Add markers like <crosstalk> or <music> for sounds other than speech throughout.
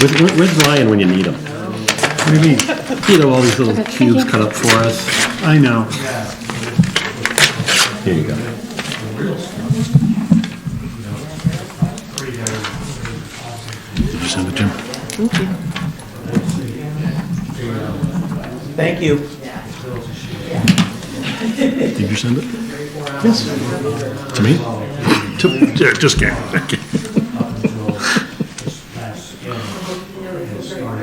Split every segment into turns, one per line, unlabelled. Where's, where- where's Ryan when you need him?
What do you mean?
You know, all these little cubes cut up for us.
I know.
Here you go.
Did you send it, Jim?
Thank you.
Did you send it? Yes. To me? To, yeah, just kidding. Thank you. All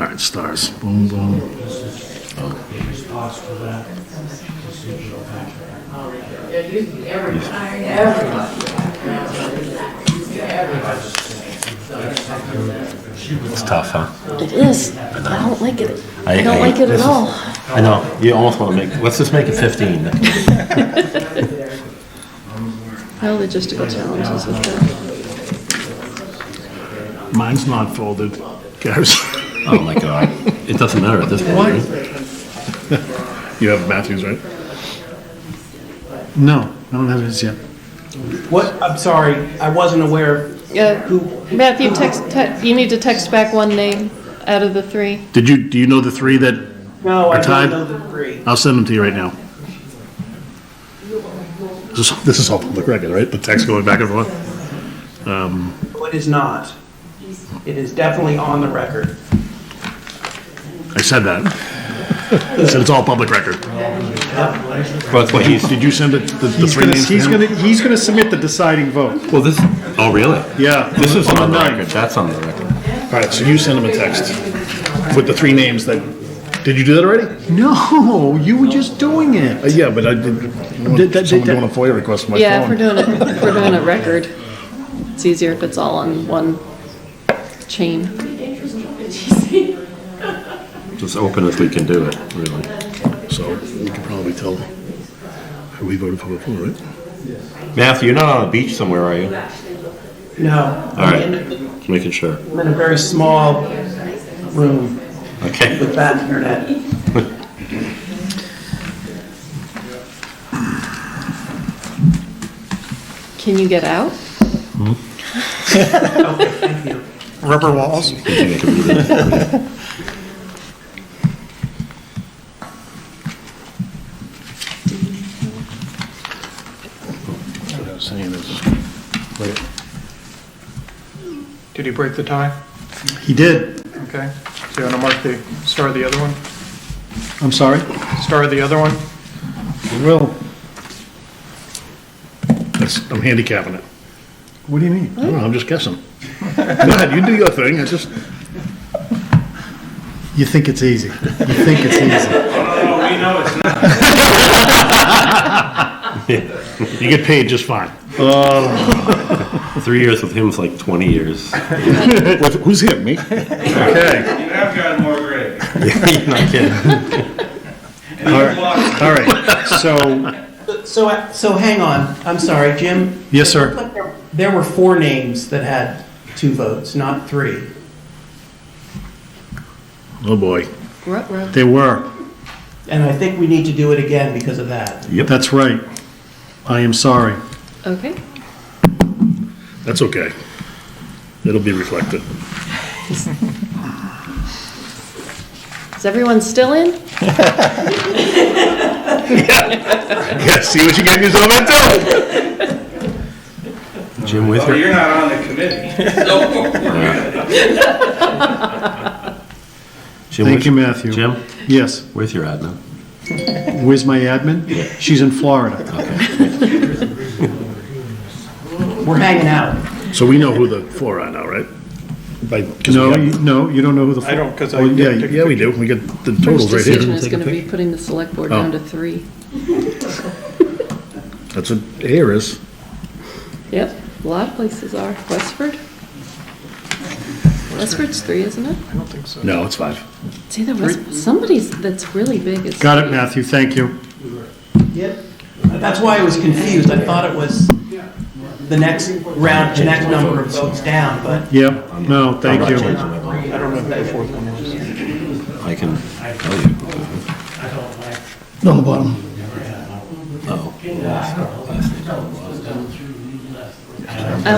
right, stars. Boom, boom.
It's tough, huh?
It is. I don't like it.
I-
I don't
I-
like it
this
at
is-
all.
I know, you almost want to make, let's just make it 15.
How logistical challenges with that.
Mine's not folded. Guys,
Oh, my God. It doesn't matter at this point. right?
<laughs> you have Matthews, right? No, I don't have his yet.
What, I'm sorry, I wasn't aware.
Yeah, Matthew, text, te- you need to text back one name out of the three.
Did you, do you know the three that,
No, I
Our time?
don't know the three.
I'll send them to you right now. This is, this is all public record, right? The text going back and forth?
No, It is not. It is definitely on the record.
I said that. I said it's all public record.
Well, that's what he's,
Did you send it, the the
He's
three
gonna,
names to
he's
him?
gonna, he's gonna submit the deciding vote.
well, this, oh, really?
Yeah.
This is on the
ninth.
record, that's on the record.
All right, so you send him a text with the three names that, did you do that already?
No, you were just doing
Uh,
it.
Yeah, but I did,
Did- did-
someone
did-
doing a FOIA request on my
Yeah, if we're
phone.
doing a, if we're doing a record, it's easier if it's all on one chain.
Just open as we can do it, really.
So we can probably tell who we voted for before, right?
Matthew, you're not on a beach somewhere, are you?
No.
All right.
I'm in-
Making sure.
I'm in a very small room
Okay. <laughs>
with bad internet.
Can you get out?
Rubber walls.
What I was saying is,
Did he break the tie?
He did.
Okay, so you want to mark the, star the other one?
I'm sorry?
Star the other one?
Will,
that's, I'm handicapping it.
what do you mean?
I don't know, I'm just guessing. Go ahead, you do your thing, I just,
You think it's easy. You think it's easy.
you get paid just fine.
Um, Three years with him's like 20
<laughs>
years.
What- Who's here, me? Okay,
You have gotten more
<laughs>
gray.
You're not kidding.
And you've lost
All right, so,
So, I- so hang on, I'm sorry, Jim.
yes, sir.
Look, there- There were four names that had two votes, not three.
oh boy,
Ruh-roh.
They were.
And I think we need to do it again because of that.
That's right. I am sorry.
Okay.
that's okay. It'll be reflected.
Is everyone still in?
Yeah, see what you get yourself into.
Jim with
Oh,
her?
you're not on the committee. So we're good.
Jim
Thank
with-
you, Matthew.
Jim,
Yes.
where's your admin?
Where's my admin? She's in Florida.
We're hanging out.
So we know who the four are now, right? By, 'cause we
No,
got-
you, no, you don't know who the.
I don't, because I
Oh, yeah,
didn't take
yeah, we do, we get the
First
totals right
decision
here.
is gonna be putting the select board
Oh.
down to three.
That's what air is.
Yep, a lot of places are. Westford? Westford's three, isn't it?
I don't think so.
No, it's five.
It's either West, somebody's that's really big is.
Got it, Matthew, thank you.
That's why I was confused. I thought it was the next round, the next number of votes down, but
Yep, no, thank you.
I don't know who the fourth one was.
I can tell you.
No, the bottom.
Oh. yes, yes.